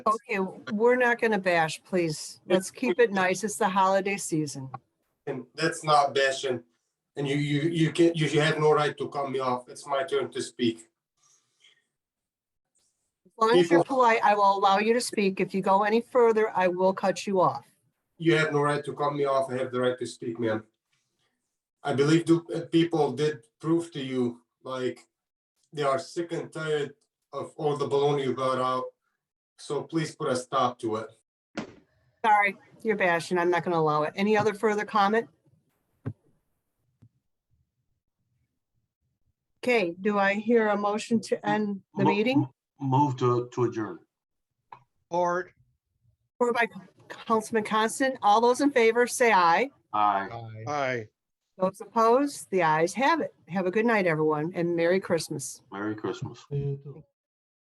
Okay, we're not going to bash, please. Let's keep it nice. It's the holiday season. And that's not bashing. And you, you, you can, you you have no right to cut me off. It's my turn to speak. As long as you're polite, I will allow you to speak. If you go any further, I will cut you off. You have no right to cut me off. I have the right to speak, man. I believe the uh, people did prove to you, like, they are sick and tired of all the baloney you got out. So please put a stop to it. Sorry, you're bashing. I'm not going to allow it. Any other further comment? Okay, do I hear a motion to end the Mo- meeting? Move to, to adjourn. Art, Or by Councilman Constant? All those in favor, say aye. Aye. aye. Those opposed, the ayes have it. Have a good night, everyone, and Merry Christmas. Merry Christmas. You too.